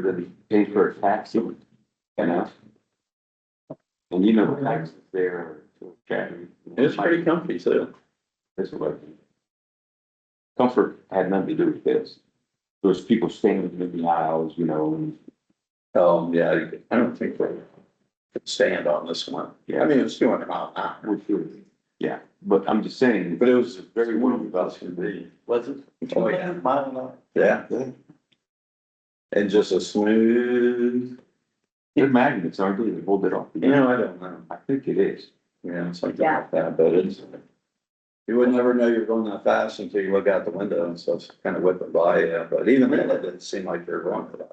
than pay for a taxi, you know? And you know, the taxes there are. so shabby. It's pretty comfy, so. That's what I think. Comfort had nothing to do with this. There was people standing in the aisles, you know, and, Um, yeah, you- I don't think we could stand on this one. I yeah, mean, it was two hundred mile an hour, we should- yeah, but I'm just saying, but it was very very well well developed. to be. Was it? Oh, yeah. Mile an hour. Yeah. Yeah. And just a smooth, they're magnets, aren't they? They hold it off. you know, I don't know, I think it is. yeah, something like that, but it's. You would never know you're going that fast until you look out the window and stuff's kind of whipping by you, but even then, it didn't seem like you're going for that.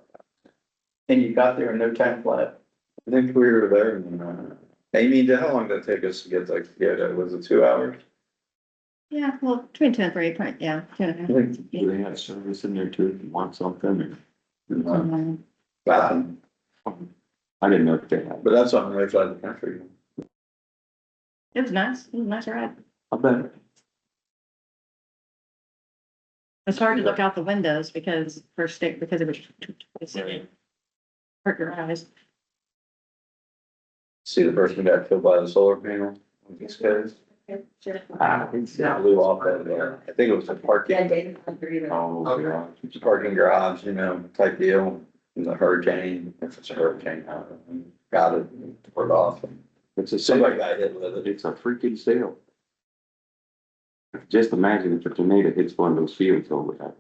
And you got there in no time flat. I think we were there, and, uh, Amy, did- how long did it take us to get to Kyoto? Was it two hours? Yeah, well, between ten and three, probably, yeah. two and a half. I think- Do they have service in there too, if you want something or? Uh, Um, Wow. I didn't know if they had, But that's on the right side of the country. It was nice, it was a nice ride. I bet. It's hard to look out the windows because for stick, because it was. it's- Right. Hurt your eyes. See the person got killed by the solar panel? These guys. Ah, Yeah, blew off that, uh, I think it was a parking, Oh, yeah. it's a parking garage, you know, type deal. And the hurricane, if it's a hurricane, uh, got it, tore it off. and It's a Somebody sale, got hit with it. it's a freaking sale. Just imagine if a tornado hits one of those fields over there.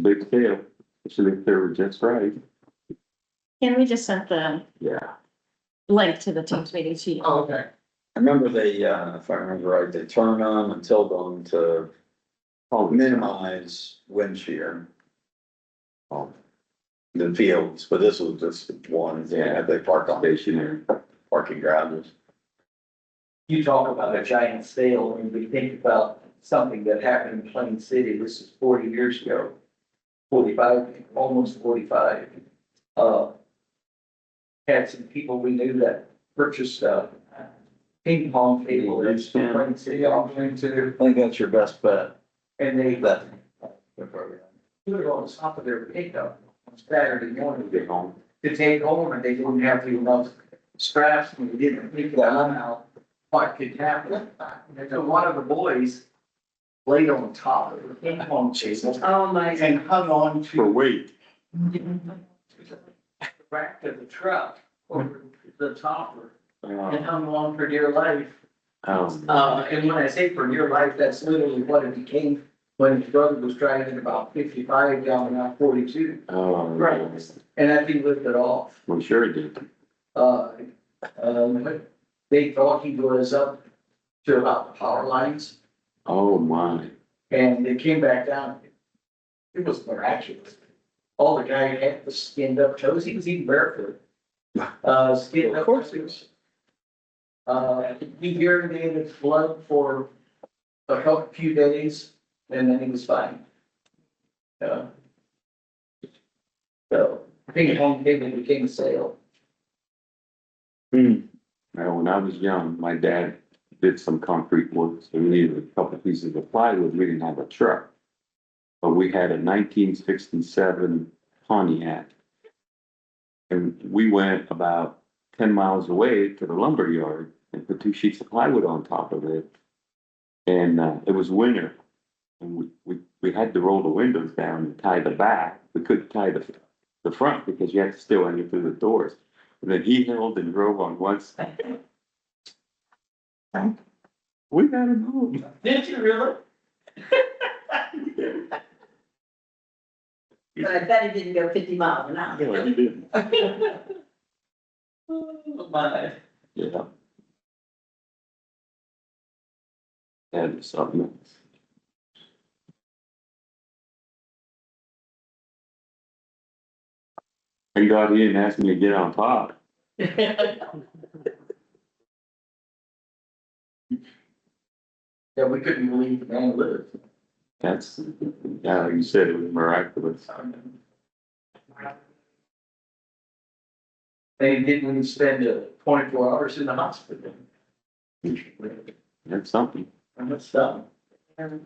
Big sale, especially if they were just right, And we just sent the yeah. link to the team's meeting to you. Okay. I remember they, uh, if I remember right, they turned on and tilt on to Holy minimize wind shear. cow. The fields, but this was just one, yeah, they parked on these Stationary. parking garages. You talk about a giant sale, and we think about something that happened in Plain City, this is forty years ago. Forty-five, almost forty-five. Uh, had some people we knew that purchased a ping pong table in Plain City, I'm going to, I think that's your best bet. and they That. put it on the top of their pickup on Saturday morning. Get home. to take home and they didn't have the enough scraps and they didn't pick them out. What could happen? And so one of the boys laid on top of the ping pong table Oh, my. and hung on For to weight. the rack of the truck over the topper and Um, hung on for dear life. um, Uh, and when I say for dear life, that's literally what it became when his brother was driving about fifty-five down Route forty-two. um, And I think lifted off. We sure did. Uh, um, they thought he was up to about the power lines Oh, my. and they came back down. It was miraculous. All the guy had was skinned up toes. He was even barefoot. Uh, skinned up. Of course he was. Uh, he urinated blood for a couple, few days and then he was fine. Uh, So, ping pong table became a sale. Now, when I was young, my dad did some concrete work, so we needed a couple pieces of plywood, we didn't have a truck. But we had a nineteen sixty-seven Pontiac. And we went about ten miles away to the lumber yard and put two sheets of plywood on top of it. And, uh, it was winter, and we, we, we had to roll the windows down and tie the back, we couldn't tie the, the front because you had to still enter through the doors. And then he held and drove on one side. We got him home. Did you really? But I bet it didn't go fifty miles an hour. No, he didn't. Oh, my. Yeah. And something else. Thank God he didn't ask me to get on top. Yeah, we couldn't believe the man lived. That's, yeah, like you said, it was miraculous. They didn't even spend uh, twenty-four hours in the hospital. That's something. And that's done. It